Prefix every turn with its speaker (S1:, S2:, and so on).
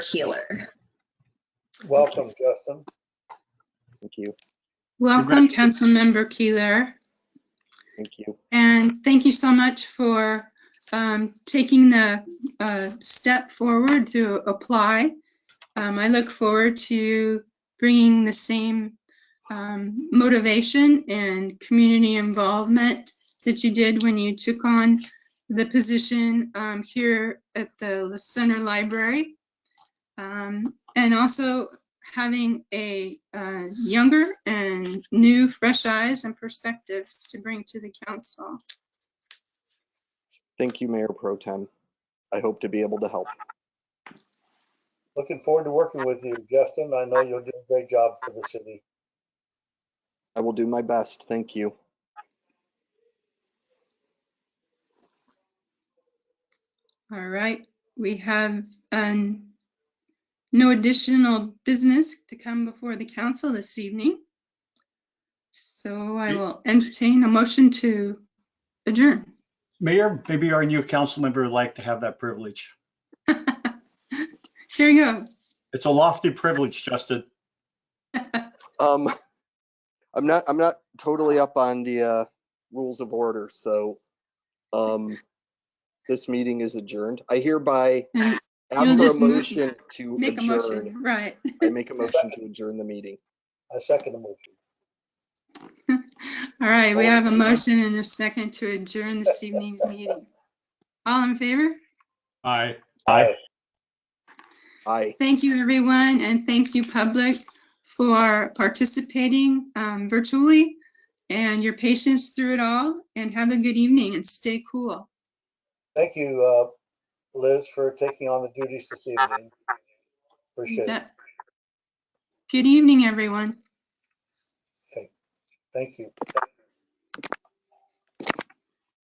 S1: Keeler.
S2: Welcome, Justin.
S3: Thank you,
S4: Welcome, Councilmember Keeler,
S3: thank you.
S4: and thank you so much for um, taking the uh, step forward to apply. Um, I look forward to bringing the same um, motivation and community involvement that you did when you took on the position um, here at the Center Library. Um, And also having a uh, younger and new, fresh eyes and perspectives to bring to the council.
S3: Thank you, Mayor Pro Tem. I hope to be able to help.
S2: Looking forward to working with you, Justin. I know you'll do a great job for the city.
S3: I will do my best, thank you.
S4: All right, we have um, no additional business to come before the council this evening. So I will entertain a motion to adjourn.
S5: Mayor, maybe our new council member would like to have that privilege.
S4: Here you go.
S5: It's a lofty privilege, Justin.
S3: Um, I'm not, I'm not totally up on the, uh, rules of order, so, um, this meeting is adjourned. I hereby
S4: You'll
S3: have a
S4: just move-
S3: motion to
S4: Make a
S3: adjourn.
S4: motion, right.
S3: I make a motion to adjourn the meeting.
S2: I second the motion.
S4: All right, we
S2: All in
S4: have a
S2: favor?
S4: motion and a second to adjourn this evening's meeting. All in favor?
S5: Aye.
S2: Aye.
S3: Aye,
S4: Thank you, everyone, and thank you, public, for participating um, virtually and your patience through it all, and have a good evening and stay cool.
S2: Thank you, uh, Liz, for taking on the duties this evening. Appreciate it.
S4: Good evening, everyone.
S2: Thank you.